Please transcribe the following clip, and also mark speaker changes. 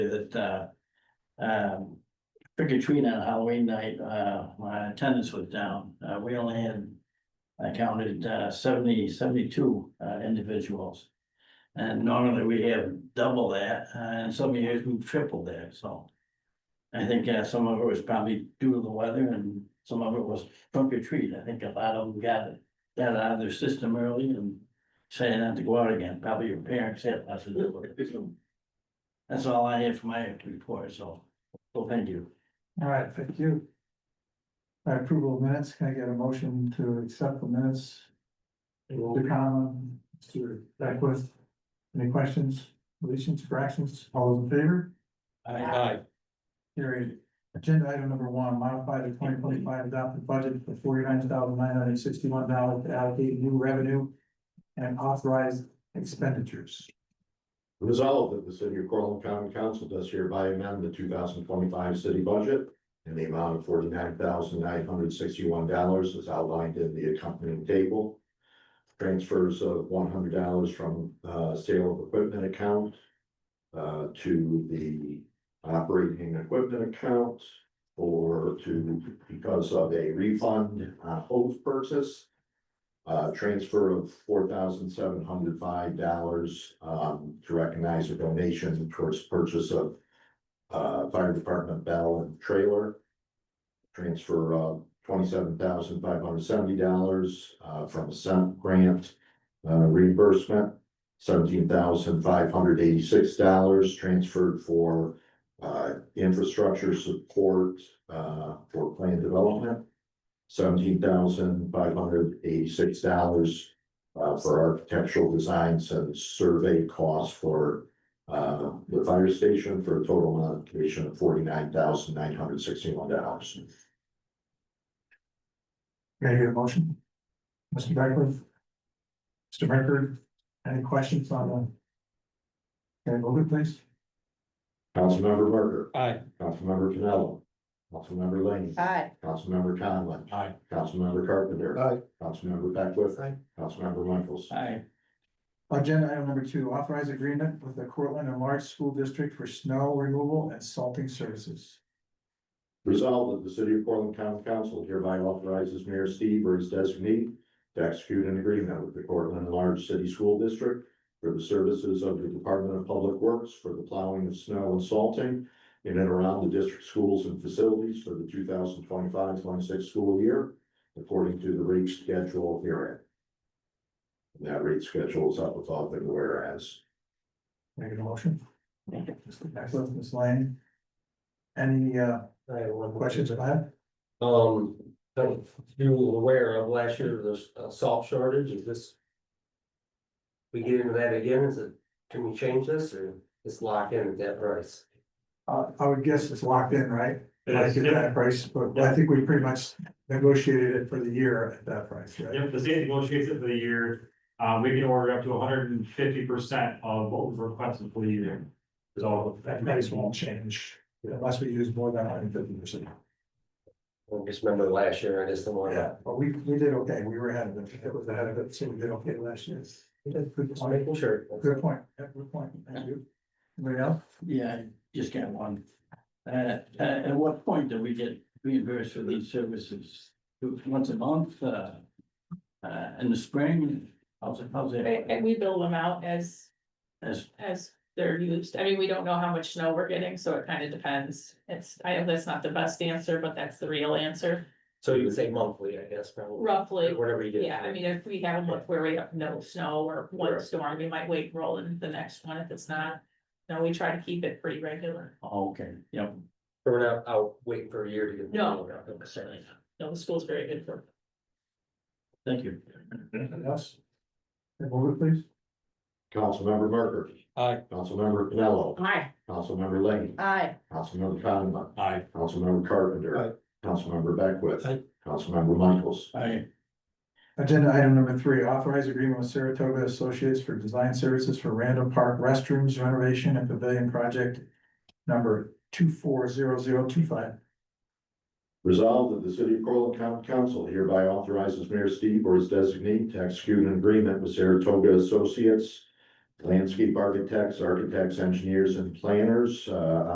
Speaker 1: that, uh. Um, trick or treat on Halloween night, uh, my attendance was down. Uh, we only had. I counted, uh, 70 72 uh, individuals. And normally we have double that, uh, and some years we triple that, so. I think, uh, some of it was probably due to the weather and some of it was trunk or treat. I think a lot of them got it. Got it out of their system early and saying not to go out again. Probably your parents had lots to do with it. That's all I have for my report, so, well, thank you.
Speaker 2: All right, thank you. All right, Approval of minutes, can I get a motion to accept the minutes? Mr. Conlon, Mr. Beckwith, any questions, deletions, corrections, all those in favor?
Speaker 1: Aye.
Speaker 2: Carried. Agenda item number one, modify the twenty twenty-five adopted budget for forty-nine thousand nine hundred sixty-one dollars to allocate new revenue and authorize expenditures.
Speaker 3: Resolved that the city of Corlent County Council does hereby amend the two thousand twenty-five city budget in the amount of forty-nine thousand nine hundred sixty-one dollars as outlined in the accompanying table. Transfers of one hundred dollars from, uh, sale of equipment account uh, to the operating equipment account or to, because of a refund on hose purchase. Uh, transfer of four thousand seven hundred five dollars, um, to recognize a donation towards purchase of. Uh, fire department bell and trailer. Transfer of twenty-seven thousand five hundred seventy dollars, uh, from a cent grant, uh, reimbursement. Seventeen thousand five hundred eighty-six dollars transferred for, uh, infrastructure support, uh, for plan development seventeen thousand five hundred eighty-six dollars uh, for architectural designs and survey costs for uh, the fire station for a total allocation of forty-nine thousand nine hundred sixty-one dollars.
Speaker 2: Can I get a motion? Mr. Beckwith? Mr. Rickard, any questions on the? Can I vote it, please?
Speaker 3: Councilmember Burger,
Speaker 4: Aye.
Speaker 3: Councilmember Pinello, Councilmember Lane,
Speaker 5: Aye.
Speaker 3: Councilmember Conlon.
Speaker 4: Aye.
Speaker 3: Councilmember Carpenter.
Speaker 4: Aye.
Speaker 3: Councilmember Beckwith.
Speaker 4: Aye.
Speaker 3: Councilmember Michaels.
Speaker 1: Aye.
Speaker 2: Agenda item number two, authorize agreement with the Cortland and Large School District for snow removal and salting services.
Speaker 3: Resolved that the city of Portland County Council hereby authorizes Mayor Steve or his designee to execute an agreement with the Portland Large City School District for the services of the Department of Public Works for the plowing of snow and salting in and around the district schools and facilities for the 2025-26 school year, according to the rate schedule herein. And That rate schedule is up above and whereas.
Speaker 2: Make a motion. Mr. Beckwith, Ms. Lane. Any uh
Speaker 4: I have one
Speaker 2: questions
Speaker 4: question.
Speaker 2: about it?
Speaker 4: Um, that you were aware of last year, there's a salt shortage, is this? We get into that again, is it, can we change this or just lock in at that price?
Speaker 2: Uh, I would guess it's locked in, right? Like at
Speaker 6: Yep,
Speaker 2: that price, but I think we pretty much negotiated it for the year at that price, right?
Speaker 6: yep, the state negotiates it for the year. Uh, we can order up to hundred and fifty percent of what was requested for the year. So
Speaker 2: That price won't change unless we use more than hundred fifty percent.
Speaker 4: I just remember last year, I just don't want
Speaker 2: Yeah,
Speaker 4: to,
Speaker 2: but we we did okay. We were ahead of it. It was ahead of it, so we did okay last year. Good
Speaker 4: just
Speaker 2: point.
Speaker 4: making sure.
Speaker 2: Good point. Yeah, good point. Thank you. Anybody else?
Speaker 1: Yeah, I just got one. Uh, uh, at what point do we get reimbursed for these services? Once a month, uh, uh, in the spring, how's it, how's
Speaker 5: And,
Speaker 1: it?
Speaker 5: and we bill them out as,
Speaker 1: As,
Speaker 5: as they're used. I mean, we don't know how much snow we're getting, so it kind of depends. It's, I know that's not the best answer, but that's the real answer,
Speaker 4: So you would say monthly, I guess, probably,
Speaker 5: roughly.
Speaker 4: whatever you get.
Speaker 5: Yeah, I mean, if we have a month where we have no snow or one
Speaker 4: Right.
Speaker 5: storm, we might wait, and roll into the next one if it's not. No, we try to keep it pretty regular.
Speaker 1: oh, okay, yep.
Speaker 4: We're not out waiting for a year to get. the
Speaker 5: No,
Speaker 4: bill.
Speaker 5: certainly not. No, the school's very good for
Speaker 1: Thank you.
Speaker 2: Anything else? Can I Move it, please.
Speaker 3: Councilmember Burger.
Speaker 4: Aye.
Speaker 3: Councilmember Pinello.
Speaker 5: Aye.
Speaker 3: Councilmember Lane.
Speaker 5: Aye.
Speaker 3: Councilmember Conlon.
Speaker 4: Aye.
Speaker 3: Councilmember Carpenter. Councilmember Beckwith.
Speaker 4: Aye.
Speaker 3: Councilmember Michaels.
Speaker 1: I,
Speaker 2: Agenda item number three, authorize agreement with Saratoga Associates for design services for Randall Park restrooms renovation and pavilion project number two four zero zero two five.
Speaker 3: Resolved that the city of Corlent County Council hereby authorizes Mayor Steve or his designee to execute an agreement with Saratoga Associates, landscape architects, architects, engineers, and planners, uh,